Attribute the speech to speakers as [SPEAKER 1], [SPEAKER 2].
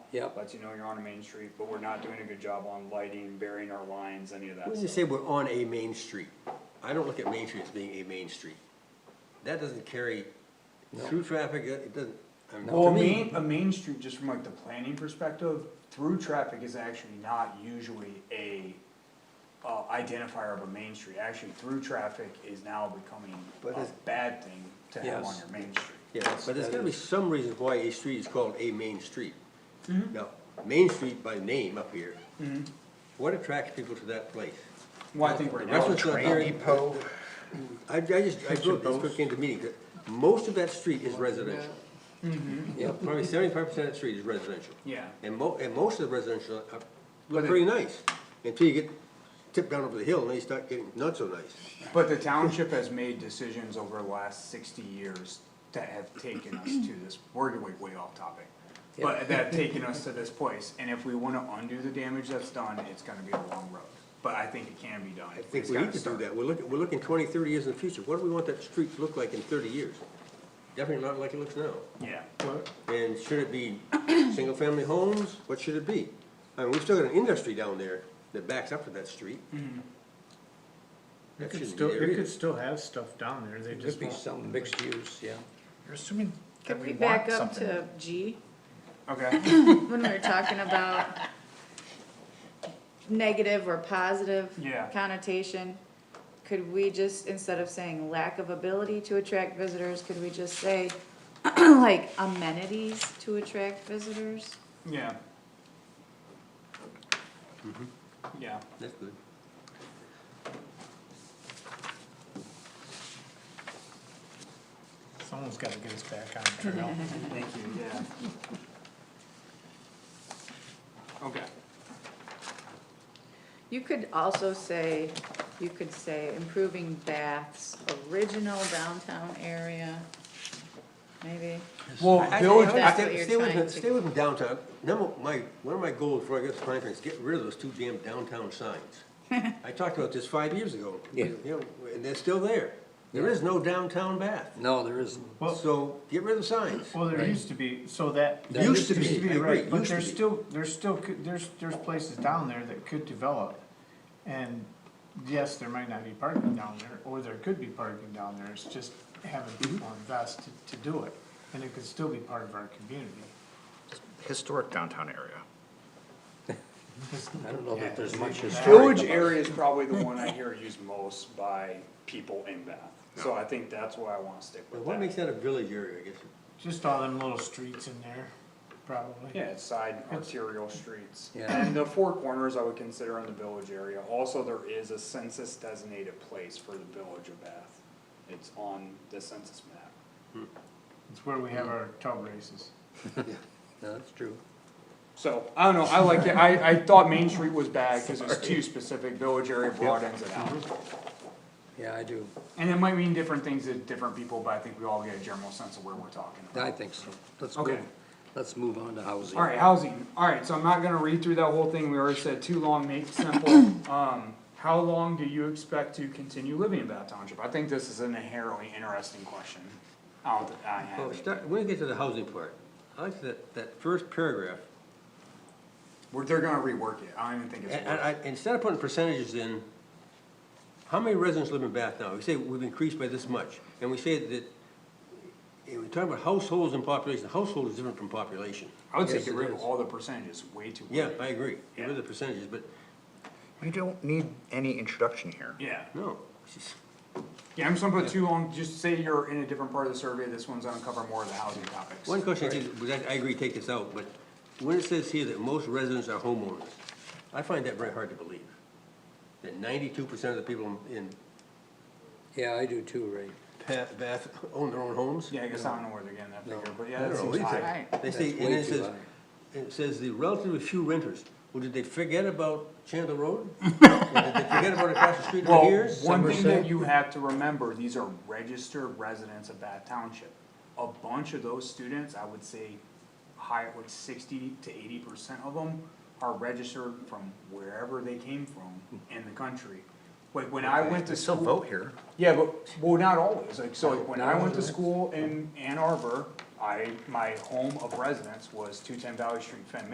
[SPEAKER 1] Yep.
[SPEAKER 2] Lets you know you're on a main street, but we're not doing a good job on lighting, burying our lines, any of that
[SPEAKER 1] When you
[SPEAKER 2] stuff.
[SPEAKER 1] say we're on a main street, I don't look at Main Street as being a main street. That doesn't carry through traffic, it it doesn't, I mean,
[SPEAKER 2] Well,
[SPEAKER 1] to
[SPEAKER 2] a
[SPEAKER 1] me.
[SPEAKER 2] main, a main street, just from like the planning perspective, through traffic is actually not usually a uh, identifier of a main street. Actually, through traffic is now becoming
[SPEAKER 1] But
[SPEAKER 2] a
[SPEAKER 1] it's-
[SPEAKER 2] bad thing to have on
[SPEAKER 1] Yes.
[SPEAKER 2] your main street.
[SPEAKER 1] Yeah, but there's gotta be some reason why a street is called a main street. Now, Main Street by name up here, what attracts people to that place?
[SPEAKER 2] Well, I think right
[SPEAKER 1] The
[SPEAKER 2] now,
[SPEAKER 1] restaurants
[SPEAKER 2] it's-
[SPEAKER 1] up here. Depot. I, I just, I drove this quick into meeting, that most of that street is residential. Yeah, probably seventy-five percent of that street is residential.
[SPEAKER 2] yeah,
[SPEAKER 1] And mo- and most of the residential are-
[SPEAKER 2] But
[SPEAKER 1] look
[SPEAKER 2] it-
[SPEAKER 1] pretty nice, until you get tipped down over the hill, and then you start getting not so nice.
[SPEAKER 2] but the township has made decisions over the last sixty years that have taken us to this, we're way, way off topic. But that have taken us to this place, and if we wanna undo the damage that's done, it's gonna be a long road. But I think it can be done.
[SPEAKER 1] I think we need to do that, we're looking, we're looking twenty, thirty years in the future, what do we want that street to look like in thirty years? Definitely not like it looks now.
[SPEAKER 2] Yeah.
[SPEAKER 1] And should it be single-family homes? What should it be? I mean, we've still got an industry down there that backs up to that street.
[SPEAKER 2] Mm-hmm.
[SPEAKER 3] It
[SPEAKER 1] That
[SPEAKER 3] could
[SPEAKER 1] shouldn't
[SPEAKER 3] still,
[SPEAKER 1] be there
[SPEAKER 3] it could
[SPEAKER 1] either.
[SPEAKER 3] still have stuff down there, they
[SPEAKER 4] Could
[SPEAKER 3] just
[SPEAKER 4] be
[SPEAKER 3] won't.
[SPEAKER 4] some mixed use, yeah.
[SPEAKER 3] You're assuming
[SPEAKER 5] Could we back up to G,
[SPEAKER 2] Okay.
[SPEAKER 5] when we were talking about negative or positive
[SPEAKER 2] Yeah.
[SPEAKER 5] connotation? Could we just, instead of saying lack of ability to attract visitors, could we just say like amenities to attract visitors?
[SPEAKER 2] Yeah.
[SPEAKER 1] Mm-hmm.
[SPEAKER 2] Yeah,
[SPEAKER 1] That's good.
[SPEAKER 3] Someone's gotta get us back on trail.
[SPEAKER 2] thank you, yeah. Okay,
[SPEAKER 5] You could also say, you could say improving Bath's original downtown area, maybe.
[SPEAKER 2] well,
[SPEAKER 1] I- I-
[SPEAKER 2] village,
[SPEAKER 5] think that's
[SPEAKER 1] stay-
[SPEAKER 5] what you're
[SPEAKER 1] stay with
[SPEAKER 5] trying
[SPEAKER 1] me-
[SPEAKER 5] to-
[SPEAKER 1] Stay with me downtown. Number, my, one of my goals before I get to planning is get rid of those two damn downtown signs. I talked about this five years ago.
[SPEAKER 4] Yeah.
[SPEAKER 1] You know, and they're still there. There is no downtown Bath.
[SPEAKER 4] No, there isn't.
[SPEAKER 3] Well-
[SPEAKER 1] So get rid of the signs.
[SPEAKER 3] Well, there
[SPEAKER 4] Right.
[SPEAKER 3] used to be, so that.
[SPEAKER 1] There used to be, I agree,
[SPEAKER 3] Right, but
[SPEAKER 1] used to
[SPEAKER 3] there's
[SPEAKER 1] be.
[SPEAKER 3] still, there's still, cou- there's, there's places down there that could develop. And yes, there might not be parking down there, or there could be parking down there, it's just having
[SPEAKER 1] Mm-hmm.
[SPEAKER 3] people invest to, to do it. And it could still be part of our community.
[SPEAKER 6] historic downtown area.
[SPEAKER 4] I don't know that there's much historic
[SPEAKER 2] village
[SPEAKER 4] about
[SPEAKER 2] area is probably the one I hear used most by people in Bath, so I think that's why I wanna stick
[SPEAKER 1] Now,
[SPEAKER 2] with
[SPEAKER 1] What makes
[SPEAKER 2] that.
[SPEAKER 1] that a village area, I guess?
[SPEAKER 3] Just all them little streets in there, probably.
[SPEAKER 2] Yeah, it's side arterial streets,
[SPEAKER 4] Yeah.
[SPEAKER 2] and the four corners I would consider in the village area, also there is a census designated place for the village of Bath. It's on the census map.
[SPEAKER 3] It's where we have our tub races.
[SPEAKER 4] No, that's true.
[SPEAKER 2] So, I don't know, I like it, I, I thought Main Street was bad, cause it's too specific, village area broad ends it out.
[SPEAKER 4] Yeah, I do.
[SPEAKER 2] And it might mean different things to different people, but I think we all get a general sense of where we're talking about.
[SPEAKER 4] I think so. Let's
[SPEAKER 2] Okay.
[SPEAKER 4] move, let's move on to housing.
[SPEAKER 2] Alright, housing, alright, so I'm not gonna read through that whole thing, we already said too long, make it simple. Um, how long do you expect to continue living in Bath Township? I think this is an inherently interesting question. I don't, I
[SPEAKER 1] Well,
[SPEAKER 2] have it.
[SPEAKER 1] start, when we get to the housing part, I like that, that first paragraph,
[SPEAKER 2] We're, they're gonna rework it, I don't even think it's
[SPEAKER 1] and,
[SPEAKER 2] worth
[SPEAKER 1] and
[SPEAKER 2] it.
[SPEAKER 1] I, instead of putting percentages in, how many residents live in Bath now? We say we've increased by this much, and we say that, eh, we're talking about households and population, household is different from population.
[SPEAKER 2] I would say
[SPEAKER 1] Yes,
[SPEAKER 2] get
[SPEAKER 1] it
[SPEAKER 2] rid of
[SPEAKER 1] is.
[SPEAKER 2] all the percentages, way too.
[SPEAKER 1] Yeah,
[SPEAKER 2] early.
[SPEAKER 1] I agree, get rid of
[SPEAKER 2] Yeah.
[SPEAKER 1] the percentages, but,
[SPEAKER 6] We don't need any introduction here.
[SPEAKER 2] Yeah.
[SPEAKER 1] no,
[SPEAKER 2] Yeah, I'm just gonna put too long, just say you're in a different part of the survey, this one's gonna cover more of the housing topics.
[SPEAKER 1] One question I did, was I, I agree, take this out, but when it says here that most residents are homeowners, I find that very hard to believe. That ninety-two percent of the people in
[SPEAKER 4] Yeah, I do too, Ray.
[SPEAKER 1] Bath, Bath own their own homes?
[SPEAKER 2] Yeah, I guess I don't know where they're getting that
[SPEAKER 4] No.
[SPEAKER 2] figure, but yeah,
[SPEAKER 1] I
[SPEAKER 2] that
[SPEAKER 1] don't know,
[SPEAKER 2] seems
[SPEAKER 1] is
[SPEAKER 2] high.
[SPEAKER 1] it? They say,
[SPEAKER 4] That's
[SPEAKER 1] and
[SPEAKER 4] way
[SPEAKER 1] it
[SPEAKER 4] too
[SPEAKER 1] says, it says the relatively few renters, well, did they forget about Chandler Road? Or Did they forget about across the street
[SPEAKER 2] Well,
[SPEAKER 1] from here?
[SPEAKER 2] one thing that
[SPEAKER 4] Somerset.
[SPEAKER 2] you have to remember, these are registered residents of Bath Township. A bunch of those students, I would say, high, like sixty to eighty percent of them are registered from wherever they came from in the country. Like, when I went to
[SPEAKER 6] Still
[SPEAKER 2] school.
[SPEAKER 6] vote here.
[SPEAKER 2] Yeah, but, well, not always, like, so like, when I went to school in Ann Arbor, I, my home of residence was two ten Valley Street, Fenn,